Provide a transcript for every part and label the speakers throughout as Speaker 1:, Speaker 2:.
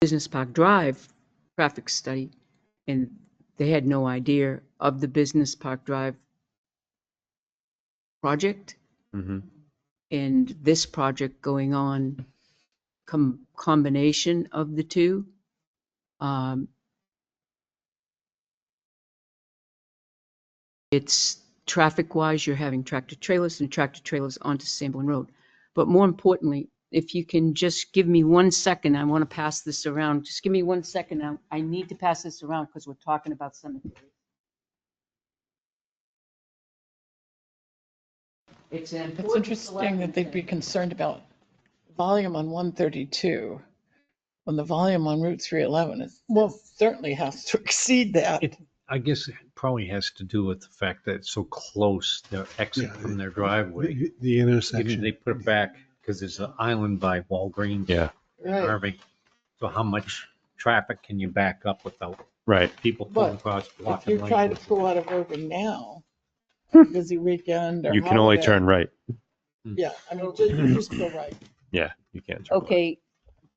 Speaker 1: Business Park Drive traffic study, and they had no idea of the Business Park Drive project
Speaker 2: Mhm.
Speaker 1: and this project going on, com- combination of the two. Um, It's, traffic-wise, you're having tractor-trailers and tractor-trailers onto Sanborn Road. But more importantly, if you can just give me one second, I want to pass this around. Just give me one second. I- I need to pass this around because we're talking about cemetery. It's an
Speaker 3: It's
Speaker 1: important
Speaker 3: interesting that they'd be
Speaker 1: selectment
Speaker 3: concerned about volume on 132 when the volume on Route 311 is, well, certainly has to exceed that.
Speaker 4: It- I guess it probably has to do with the fact that it's so close, their exit
Speaker 5: Yeah,
Speaker 4: from their
Speaker 5: The-
Speaker 4: driveway.
Speaker 5: The the
Speaker 4: Even
Speaker 5: intersection.
Speaker 4: they put it back because there's an island by Walgreens.
Speaker 2: Yeah,
Speaker 4: and Irving. So how much traffic can you back up without
Speaker 2: right.
Speaker 4: people pulling
Speaker 3: But
Speaker 4: across
Speaker 3: If
Speaker 4: blocking
Speaker 3: you try to
Speaker 4: lanes?
Speaker 3: pull out of Irving now, busy weekend or
Speaker 2: You can only
Speaker 3: holiday,
Speaker 2: turn right.
Speaker 3: Yeah, I mean, just, you just go right.
Speaker 2: Yeah, you can't turn. left.
Speaker 1: Okay,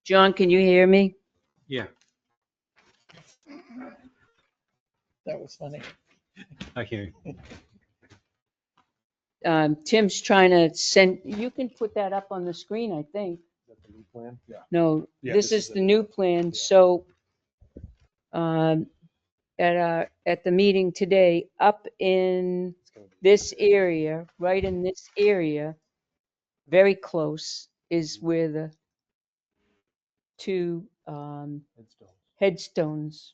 Speaker 1: John, can you hear me?
Speaker 4: Yeah,
Speaker 3: That was funny.
Speaker 4: I hear you.
Speaker 1: Um, Tim's trying to send, you can put that up on the screen, I think. No,
Speaker 5: Yeah,
Speaker 1: this is the new plan, so um, at our, at the meeting today, up in this area, right in this area, very close is where the two um, headstones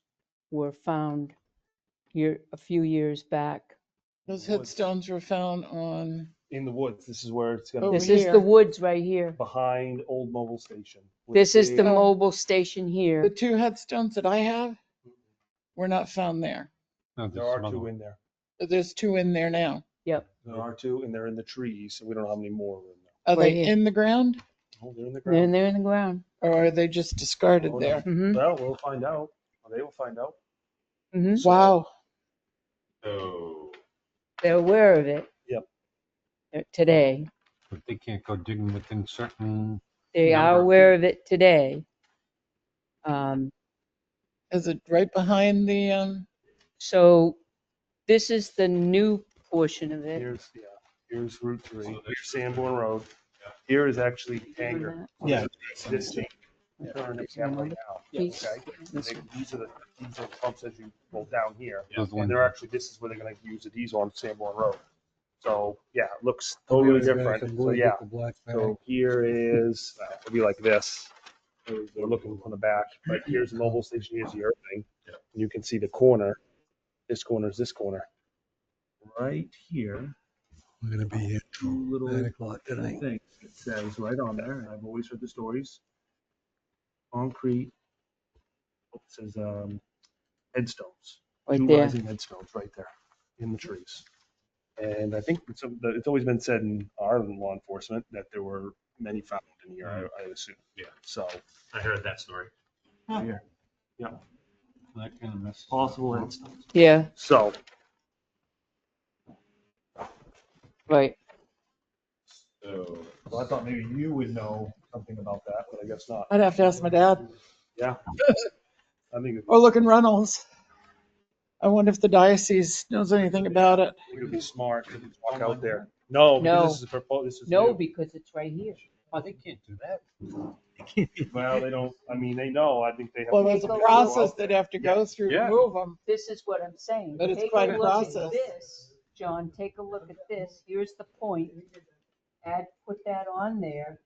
Speaker 1: were found year, a few years back.
Speaker 3: Those headstones were found on,
Speaker 6: in the woods. This is where it's
Speaker 3: Over
Speaker 6: gonna be
Speaker 1: This is
Speaker 3: here.
Speaker 1: the woods right here.
Speaker 6: behind old mobile station. with
Speaker 1: This is the
Speaker 3: Oh.
Speaker 1: mobile station
Speaker 3: the
Speaker 1: here.
Speaker 3: two headstones that I have were not found there.
Speaker 4: No,
Speaker 6: There
Speaker 4: there's
Speaker 6: are
Speaker 4: another
Speaker 6: two
Speaker 4: one.
Speaker 6: in there.
Speaker 3: But There's two in there now.
Speaker 6: There are two, and they're in the trees, and we don't know how many more are in there.
Speaker 3: Are
Speaker 1: Right
Speaker 3: they
Speaker 1: here.
Speaker 3: in the ground
Speaker 6: Oh, they're in the
Speaker 1: They're,
Speaker 6: ground.
Speaker 1: they're in the ground.
Speaker 3: or are they just discarded
Speaker 6: Oh, no.
Speaker 3: there?
Speaker 1: hmm
Speaker 6: Well, we'll find out. Or They will find out.
Speaker 1: hmm
Speaker 6: So-
Speaker 3: Wow.
Speaker 1: They're aware of it.
Speaker 6: Yep.
Speaker 1: Uh, Today.
Speaker 4: But they can't go digging within certain,
Speaker 1: They are
Speaker 4: Number.
Speaker 1: aware of it today. Um,
Speaker 3: Is it right behind the, um,
Speaker 1: so this is the new portion of it.
Speaker 6: Here's, yeah, here's Route Three, here's Sanborn Road. Here is actually Tanger.
Speaker 5: Yeah.
Speaker 6: This thing.
Speaker 1: Yeah.
Speaker 6: Current it's down right now,
Speaker 1: Piece.
Speaker 6: okay? And they- These are the, these are the pumps as you go down here.
Speaker 4: those
Speaker 6: And
Speaker 4: ones-
Speaker 6: they're actually, this is where they're gonna use the diesel on Sanborn Road. So, yeah, it looks
Speaker 5: Oh,
Speaker 6: totally different. So, yeah. So here is, uh, it'll be like this. We're looking from the back, but here's the mobile station, here's the Irving. You can see the corner. This corner is this corner. Right here,
Speaker 5: We're gonna be here till
Speaker 6: two
Speaker 5: nine
Speaker 6: little
Speaker 5: o'clock tonight.
Speaker 6: things. It says right on there, and I've always heard the stories. Concrete. It says, um, headstones.
Speaker 1: Right
Speaker 6: Two
Speaker 1: there.
Speaker 6: Rising headstones right there in the trees. And I think it's, it's always been said in our law enforcement that there were many found in here, I, I assume.
Speaker 2: Yeah.
Speaker 6: So.
Speaker 2: I heard that story.
Speaker 4: that kind of mess.
Speaker 6: Possible headstones.
Speaker 1: Yeah,
Speaker 6: Um, So,
Speaker 1: right.
Speaker 2: So.
Speaker 6: well, I thought maybe you would know something about that, but I guess not.
Speaker 3: I'd have to ask my dad.
Speaker 6: Yeah. I think it
Speaker 3: Or look in Reynolds. I wonder if the diocese knows anything about it.
Speaker 6: it would be smart to just walk out there. No,
Speaker 1: No.
Speaker 6: because this is a proposal, this is.
Speaker 1: No,
Speaker 6: new.
Speaker 1: because it's right here.
Speaker 4: Oh, they can't do that.
Speaker 6: Well, they don't, I mean, they know, I think they have.
Speaker 3: Well, there's a
Speaker 6: They go out
Speaker 3: process
Speaker 6: there.
Speaker 3: they'd have to go through to
Speaker 6: Yeah.
Speaker 3: move them.
Speaker 1: This is what I'm saying.
Speaker 3: But it's
Speaker 1: Take
Speaker 3: quite a
Speaker 1: look at
Speaker 3: process.
Speaker 1: This, John, take a look at this. Here's the point. Add, put that on there.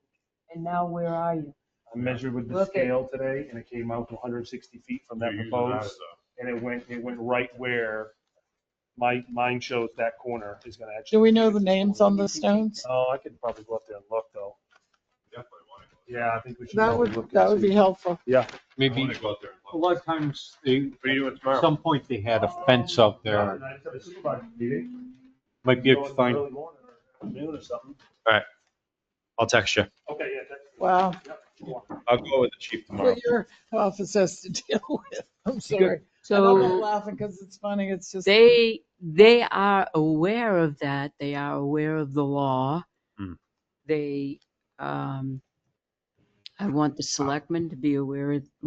Speaker 1: And now where are you?
Speaker 6: I measured with the
Speaker 1: Look at-
Speaker 6: scale today and it came out to hundred and sixty feet from that proposed. And it went, it went right where my, mine shows that corner is gonna actually.
Speaker 3: Do we know the names on the stones?
Speaker 6: Oh, I could probably go up there and look though. Yeah, I think we should.
Speaker 3: That
Speaker 6: probably
Speaker 3: would,
Speaker 6: look and
Speaker 3: that would
Speaker 6: see.
Speaker 3: be helpful.
Speaker 4: Maybe, a lot of times they, at some point they had a fence out there.
Speaker 6: And I said, "This is about a meeting."
Speaker 4: Might be able to
Speaker 6: Go in the
Speaker 4: find,
Speaker 6: early morning or Noon or something.
Speaker 2: I'll text you.
Speaker 6: Okay, yeah. that's-
Speaker 3: Wow.
Speaker 6: yep, sure.
Speaker 2: I'll go with the chief tomorrow.
Speaker 3: What your office has to deal with. I'm sorry. And I'm not
Speaker 1: So
Speaker 3: laughing because it's funny. It's just,
Speaker 1: they, they are aware of that. They are aware of the law.
Speaker 2: Hmm.
Speaker 1: They, um, I want the selectmen to be aware of